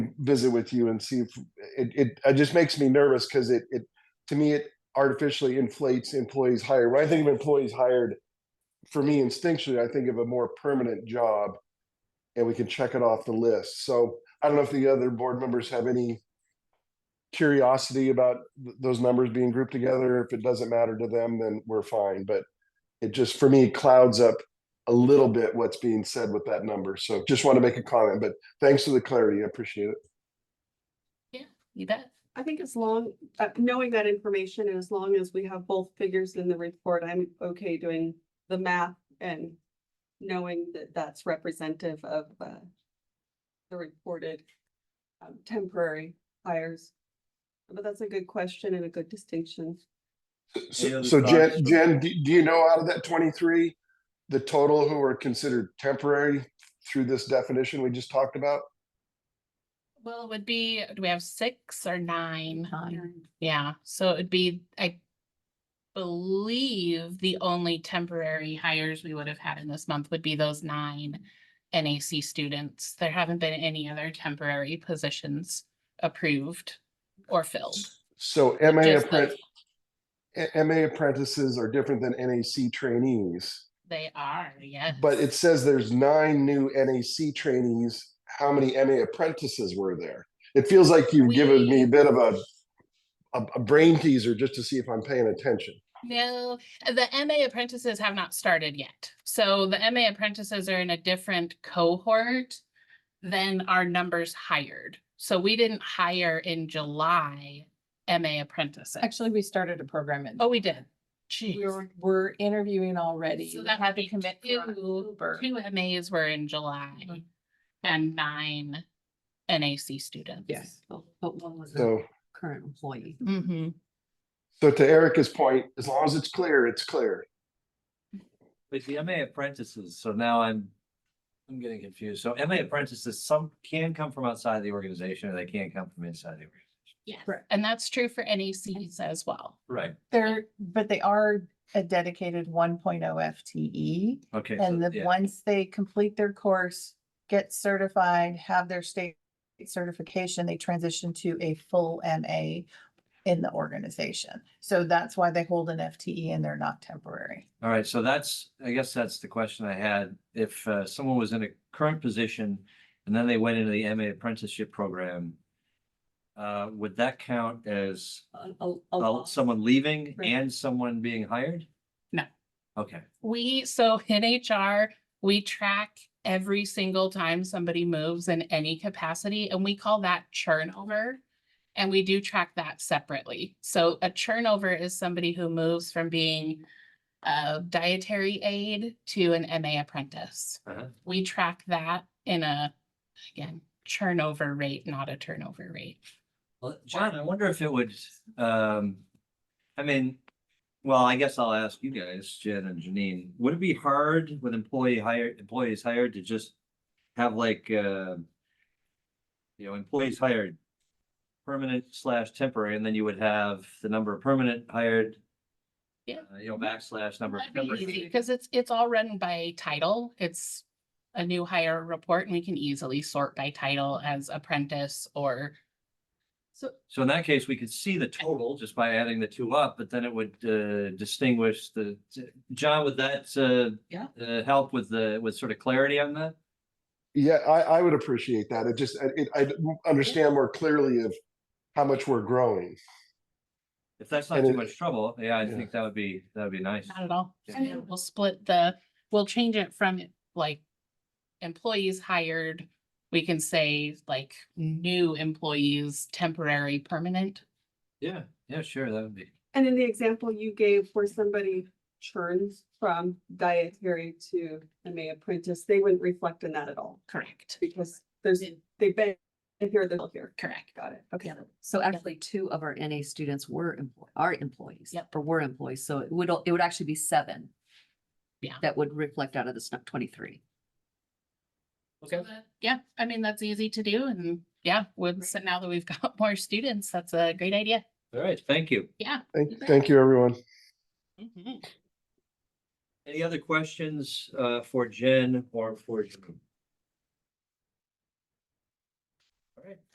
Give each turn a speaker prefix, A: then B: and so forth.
A: visit with you and see if it, it, it just makes me nervous because it, it, to me, it artificially inflates employees hired. When I think of employees hired, for me instinctually, I think of a more permanent job and we can check it off the list. So I don't know if the other board members have any curiosity about th- those numbers being grouped together. If it doesn't matter to them, then we're fine. But it just, for me, clouds up a little bit what's being said with that number. So just want to make a comment, but thanks for the clarity. I appreciate it.
B: You bet.
C: I think as long, uh, knowing that information, and as long as we have both figures in the report, I'm okay doing the math and knowing that that's representative of, uh, the reported um, temporary hires. But that's a good question and a good distinction.
D: Any
A: So,
D: other
A: so Jen,
D: thoughts?
A: Jen, do, do you know out of that twenty-three, the total who are considered temporary through this definition we just talked about?
B: Well, it would be, do we have six or nine? Yeah, so it would be, I believe the only temporary hires we would have had in this month would be those nine NAC students. There haven't been any other temporary positions approved or filled.
A: So MA
B: Just
A: apprent,
B: those-
A: A- MA apprentices are different than NAC trainees.
B: They are, yes.
A: But it says there's nine new NAC trainees. How many MA apprentices were there? It feels like you've given me a bit of a, a, a brain teaser just to see if I'm paying attention.
B: No, the MA apprentices have not started yet. So the MA apprentices are in a different cohort than our numbers hired. So we didn't hire in July MA apprentices.
E: Actually, we started a program and
B: Oh, we did.
E: we
B: Jeez.
E: were, we're interviewing already.
B: So
E: We
B: that
E: had
B: would be
E: commit for
B: two,
E: October.
B: two MAs were in
E: Mm-hmm.
B: July and nine NAC students.
E: Yes.
F: But but one was a
A: So,
F: current employee.
B: Mm-hmm.
A: so to Erica's point, as long as it's clear, it's clear.
D: But the MA apprentices, so now I'm, I'm getting confused. So MA apprentices, some can come from outside the organization or they can come from inside the organization.
B: Yes,
E: Correct.
B: and that's true for NACs as well.
D: Right.
E: They're, but they are a dedicated one oh FTE.
D: Okay. so-
E: E. And then
D: yeah.
E: once they complete their course, get certified, have their state certification, they transition to a full MA in the organization. So that's why they hold an FTE and they're not temporary.
D: All right, so that's, I guess that's the question I had. If uh, someone was in a current position and then they went into the MA apprenticeship program, uh, would that count as
F: a- a- a
D: uh,
F: loss.
D: someone leaving
F: Right.
D: and someone being hired?
B: No.
D: Okay,
B: We, so in HR, we track every single time somebody moves in any capacity and we call that churn over. And we do track that separately. So a churnover is somebody who moves from being a dietary aide to an MA apprentice.
D: Uh-huh.
B: We track that in a, again, churnover rate, not a turnover rate.
D: well, John, I wonder if it would, um, I mean, well, I guess I'll ask you guys, Jen and Janine, would it be hard with employee hired, employees hired to just have like, uh, you know, employees hired permanent slash temporary, and then you would have the number of permanent hired.
B: Yeah.
D: uh, You know, backslash number of
B: That'd be
D: temporary.
B: easy, Cause it's, it's all run by title. It's a new hire report and we can easily sort by title as apprentice or.
D: So in that case, we could see the total just by adding the two up, but then it would uh, distinguish the, John, would that uh,
F: Yeah.
D: uh, help with the, with sort of clarity on that?
A: Yeah, I, I would appreciate that. It just, I- it, I understand more clearly of how much we're growing.
D: If that's not
A: And
D: too
A: it-
D: much trouble, yeah, I
A: Yeah.
D: think that would be, that would be nice.
B: Not at all.
D: Yeah.
B: And then We'll split the, we'll change it from like employees hired. We can say like new employees, temporary, permanent.
D: Yeah, yeah, sure, that would be.
C: And in the example you gave where somebody churns from dietary to MA apprentice, they wouldn't reflect on that at all
B: Correct.
C: because there's, they've been here, they're still here.
B: Correct.
C: Got it. Okay.
F: Yeah. So actually, two of our NA students were employ, are employees.
B: Yep.
F: Or were employees, so it would, al- it would actually be seven.
B: Yeah.
F: That would reflect out of this nu- twenty-three.
B: So that- Yeah, I mean, that's easy to do and yeah, with, so now that we've got more students, that's a great idea.
D: All right, thank you.
B: Yeah.
A: Thank,
B: You bet.
A: thank you, everyone.
B: Mhm.
D: Any other questions uh, for Jen or for Janine? All right,